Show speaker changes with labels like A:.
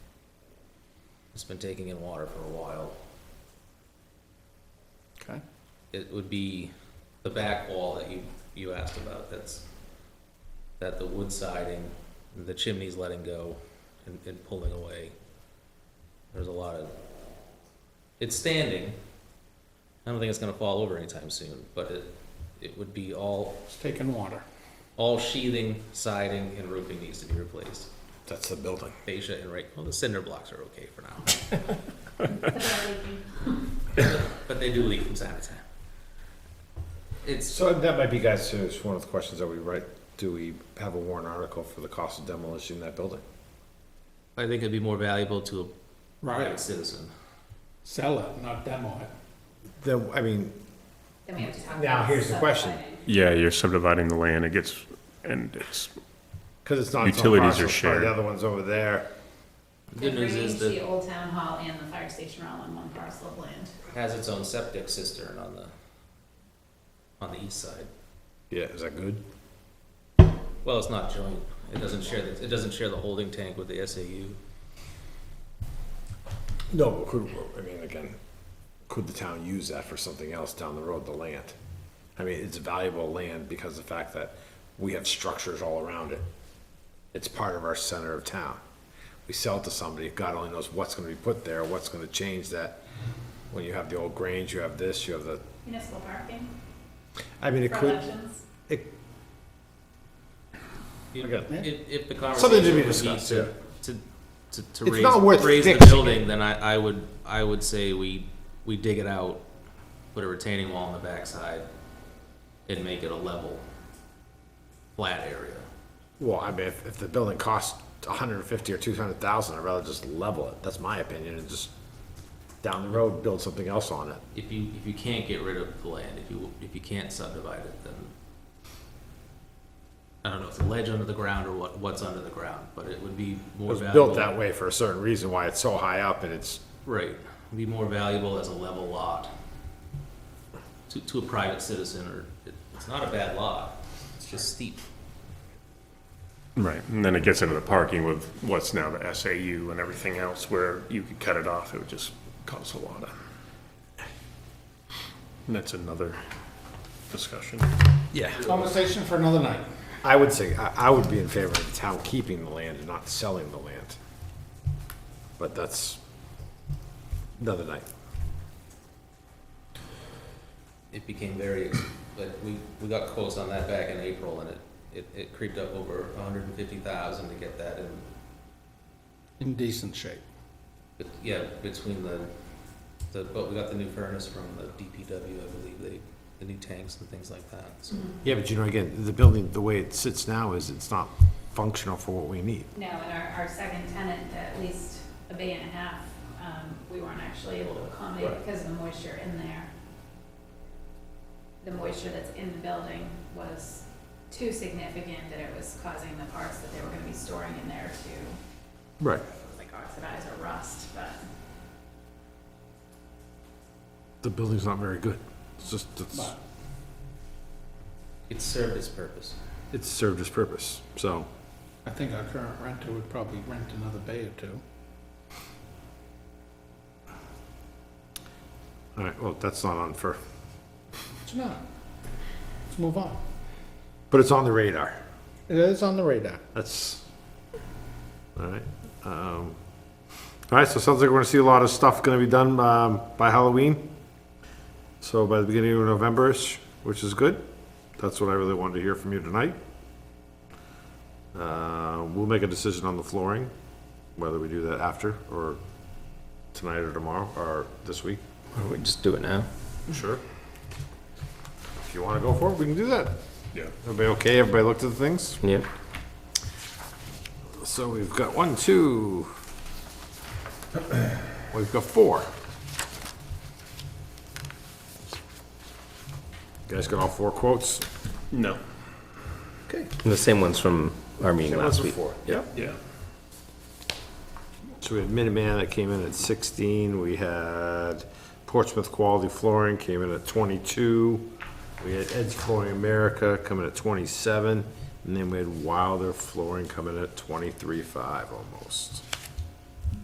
A: It's been taking in water for a while.
B: Okay.
A: It would be the back wall that you, you asked about, that's, that the wood siding, the chimney's letting go and, and pulling away. There's a lot of, it's standing. I don't think it's gonna fall over anytime soon, but it, it would be all,
B: It's taking water.
A: all sheathing, siding, and roofing needs to be replaced.
C: That's the building.
A: Fascia and right, well, the cinder blocks are okay for now. But they do leak from time to time. It's,
C: So that might be, guys, so it's one of the questions that we write, do we have a warrant article for the cost of demolition of that building?
A: I think it'd be more valuable to a private citizen.
B: Sell it, not demo it.
C: Then, I mean,
D: Then we have to talk
C: Now,
D: about
C: here's the question.
D: subdividing.
E: Yeah, you're subdividing the land, it gets, and it's,
C: cause it's not. its own
E: Utilities are
C: parcel, it's probably
E: shared.
C: The other one's over there.
A: Good news
D: Agreeing
A: is
D: to
A: that
D: The old town hall and the fire station are all on one parcel of land.
A: it has its own septic cistern on the, on the east side.
C: Yeah, is that good?
A: Well, it's not joint, it doesn't share, the- it doesn't share the holding tank with the SAU.
C: No, but could, I mean, again, could the town use that for something else down the road, the land? I mean, it's valuable land because of the fact that we have structures all around it. It's part of our center of town. We sell it to somebody, God only knows what's gonna be put there, what's gonna change that. When you have the old Grange, you have this, you have the,
D: Municipal parking
C: I mean, it
D: for
C: could,
D: elections.
C: it,
A: If, if- if the
C: Something
A: conversation
C: to be
A: would be
C: discussed, yeah.
A: to, to, to, to
C: It's not worth
A: raise, raise the
C: fixing
A: building, then I, I would, I would say we, we dig it out, put a retaining wall on the backside, and make it a level, flat area.
C: well, I mean, if, if the building costs a hundred and fifty or two hundred thousand, I'd rather just level it, that's my opinion, and just down the road, build something else on it.
A: If you, if you can't get rid of the land, if you, if you can't subdivide it, then I don't know, if it's a ledge under the ground or what, what's under the ground, but it would be
C: It
A: more
C: was
A: valuable.
C: built that way for a certain reason, why it's so high up and it's,
A: Right, it'd be more valuable as a level lot to, to a private citizen, or, it- it's not a bad lot, it's just steep.
E: right, and then it gets into the parking with what's now the SAU and everything else where you could cut it off, it would just cause a lot of. And that's another discussion.
C: yeah.
B: Conversation for another night.
C: I would say, I, I would be in favor of the town keeping the land and not selling the land. But that's another night.
A: It became very, ex- like, we, we got quotes on that back in April, and it, it, it creeped up over a hundred and fifty thousand to get that in
B: In decent shape.
A: But yeah, between the, the, but we got the new furnace from the DPW, I believe, they, the new tanks and things like that, so.
C: Yeah, but you know, again, the building, the way it sits now is it's not functional for what we need.
D: No, and our, our second tenant, at least a bay and a half, um, we weren't actually able to accommodate
A: Right.
D: because of the moisture in there. The moisture that's in the building was too significant that it was causing the parts that they were gonna be storing in there to,
C: Right.
D: like oxidize or rust, but.
C: The building's not very good. It's just, it's,
B: But
A: It served its purpose.
C: it's served its purpose, so.
B: I think our current renter would probably rent another bay or two.
C: All right, well, that's not on for,
B: It's not. Let's move on.
C: but it's on the radar.
B: It is on the radar.
C: That's, all right. Um, All right, so it sounds like we're gonna see a lot of stuff gonna be done um, by Halloween. So by the beginning of November-ish, which is good. That's what I really wanted to hear from you tonight. Uh, We'll make a decision on the flooring, whether we do that after, or tonight or tomorrow, or this week.
A: Why don't we just do it now?
C: Sure. If you wanna go for it, we can do that.
E: Yeah.
C: Everybody okay? Everybody looked at the things?
A: Yep.
C: So we've got one, two. We've got four. You guys got all four quotes?
E: No.
C: Okay.
F: The same ones from our meeting last week.
C: Yep.
E: Yeah.
C: So we had Minuteman that came in at sixteen, we had Portsmouth Quality Flooring came in at twenty-two, we had Ed's Flooring America coming at twenty-seven, and then we had Wilder Flooring coming at twenty-three-five almost.